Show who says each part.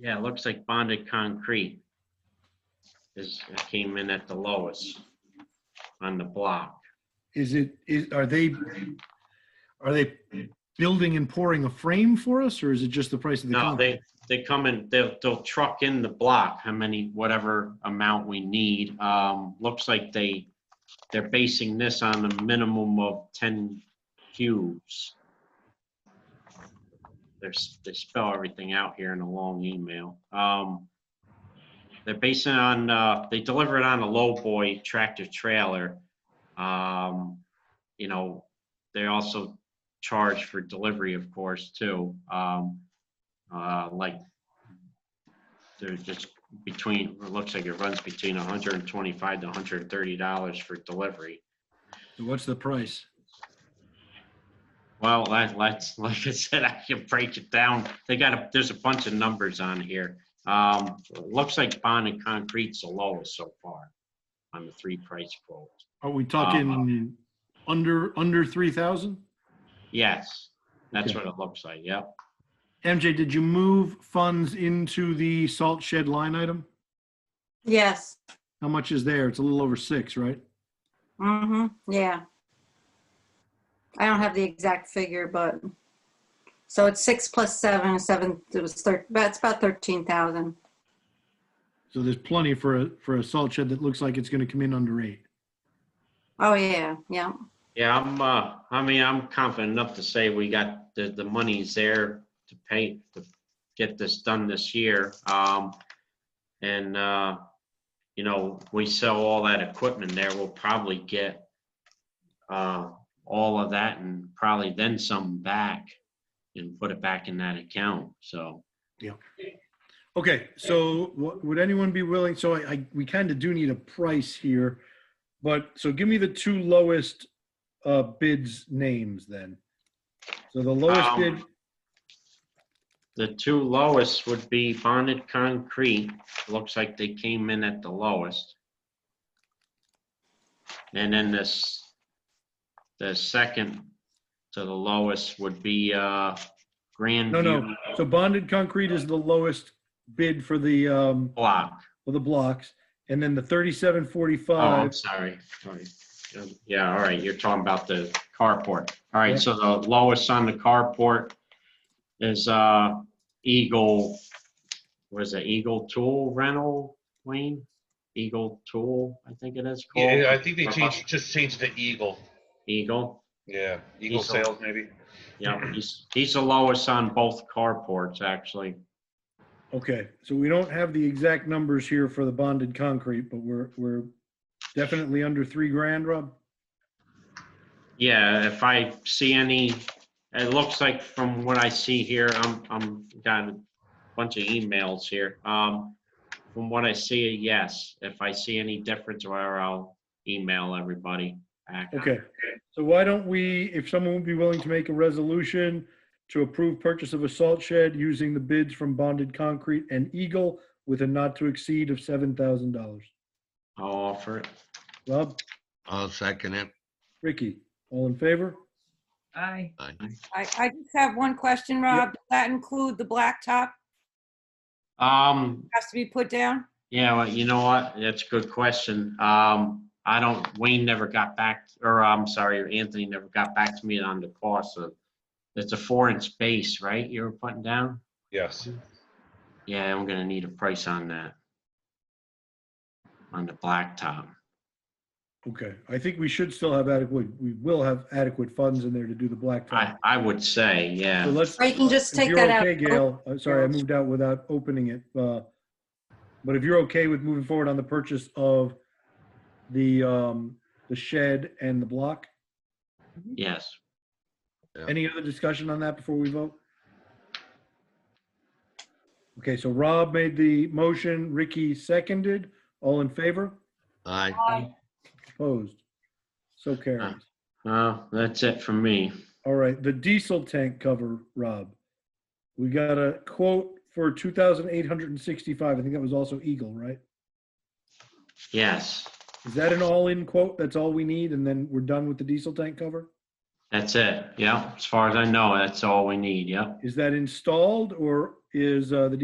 Speaker 1: Yeah, it looks like bonded concrete is, it came in at the lowest on the block.
Speaker 2: Is it, is, are they, are they building and pouring a frame for us, or is it just the price of the
Speaker 1: No,
Speaker 2: concrete?
Speaker 1: they, they come in, they'll, they'll truck in the block, how many, whatever amount we need. Um, looks like they, they're basing this on a minimum of ten cubes. There's, they spell everything out here in a long email. Um, they're basing on, uh, they deliver it on a lowboy tractor trailer. Um, you know, they also charge for delivery, of course, too. Um, uh, like they're just between, it looks like it runs between 125 to 130 dollars for delivery.
Speaker 2: What's the price?
Speaker 1: Well, that, that's, like I said, I can break it down. They got, a there's a bunch of numbers on here. Um, Looks like bond and concrete's the lowest so far on the three price quote.
Speaker 2: Are we talking under, under 3,000?
Speaker 1: Yes, that's
Speaker 2: Okay.
Speaker 1: what it looks like, yep.
Speaker 2: MJ, did you move funds into the salt shed line item?
Speaker 3: Yes.
Speaker 2: How much is there? It's a little over six, right?
Speaker 3: hmm Yeah. I don't have the exact figure, but so it's six plus seven, seven, it was thir, that's about thirteen thousand.
Speaker 2: So there's plenty for a, for a salt shed that looks like it's gonna come in under eight.
Speaker 3: Oh, yeah, yeah.
Speaker 1: Yeah, I'm, uh, I mean, I'm confident enough to say we got the, the money's there to pay, to get this done this year. Um, and, uh, you know, we sell all that equipment there, we'll probably get, uh, all of that and probably then some back and put it back in that account, so.
Speaker 2: Okay, so what, would anyone be willing, so I, I, we kind of do need a price here, but, so give me the two lowest, uh, bids names then. So the lowest
Speaker 1: Um,
Speaker 2: bid,
Speaker 1: The two lowest would be bonded concrete. Looks like they came in at the lowest. And then this, the second to the lowest would be uh Grand
Speaker 2: no, no,
Speaker 1: View
Speaker 2: so bonded concrete is the lowest bid for the, um,
Speaker 1: Block.
Speaker 2: for the blocks, and then the thirty-seven
Speaker 1: Oh, I'm
Speaker 2: forty-five,
Speaker 1: sorry, sorry. Um, Yeah, all right, you're talking about the carport. All
Speaker 2: Yeah.
Speaker 1: right, so the lowest on the carport is uh Eagle, what is it, Eagle Tool Rental, Wayne? Eagle Tool, I think it is called.
Speaker 4: Yeah, I think they changed, just changed to Eagle.
Speaker 1: Eagle,
Speaker 4: Yeah, Eagle
Speaker 1: Eagle.
Speaker 4: Sales maybe.
Speaker 1: yeah, he's, he's the lowest on both carports, actually.
Speaker 2: okay, so we don't have the exact numbers here for the bonded concrete, but we're, we're definitely under three grand, Rob?
Speaker 1: Yeah, if I see any, it looks like from what I see here, I'm, I'm got a bunch of emails here. Um, from what I see, yes, if I see any difference, where I'll email everybody. back.
Speaker 2: Okay, so why don't we, if someone would be willing to make a resolution to approve purchase of a salt shed using the bids from Bonded Concrete and Eagle with a not to exceed of seven thousand dollars.
Speaker 1: I'll offer it.
Speaker 2: Rob,
Speaker 5: I'll second it.
Speaker 2: Ricky, all in favor?
Speaker 6: Aye.
Speaker 5: Aye.
Speaker 7: I, I just have one question, Rob. Does that include the blacktop
Speaker 1: Um,
Speaker 7: has to be put down?
Speaker 1: Yeah, well, you know what? That's a good question. Um, I don't, Wayne never got back, or I'm sorry, Anthony never got back to me on the cost of, it's a four inch base, right? You were putting down?
Speaker 4: Yes.
Speaker 1: Yeah, I'm gonna need a price on that. On the blacktop.
Speaker 2: Okay, I think we should still have adequate, we will have adequate funds in there to do the
Speaker 1: I,
Speaker 2: blacktop.
Speaker 1: I would say,
Speaker 2: So
Speaker 1: yeah.
Speaker 2: let's,
Speaker 3: Or you can just
Speaker 2: if
Speaker 3: take
Speaker 2: you're
Speaker 3: that
Speaker 2: okay,
Speaker 3: out.
Speaker 2: Gail, I'm sorry, I moved out without opening it. uh, But if you're okay with moving forward on the purchase of the, um, the shed and the block?
Speaker 1: Yes.
Speaker 2: Any other discussion on that before we vote? Okay, so Rob made the motion, Ricky seconded. All in favor?
Speaker 5: Aye.
Speaker 2: Opposed? So carries.
Speaker 1: Uh, that's it for me.
Speaker 2: All right, the diesel tank cover, Rob. We got a quote for 2,865. I think that was also Eagle, right?
Speaker 1: Yes,
Speaker 2: Is that an all-in quote? That's all we need, and then we're done with the diesel tank cover?
Speaker 1: that's it. Yeah, as far as I know, that's all we need. Yep.
Speaker 2: Is that installed, or is uh, the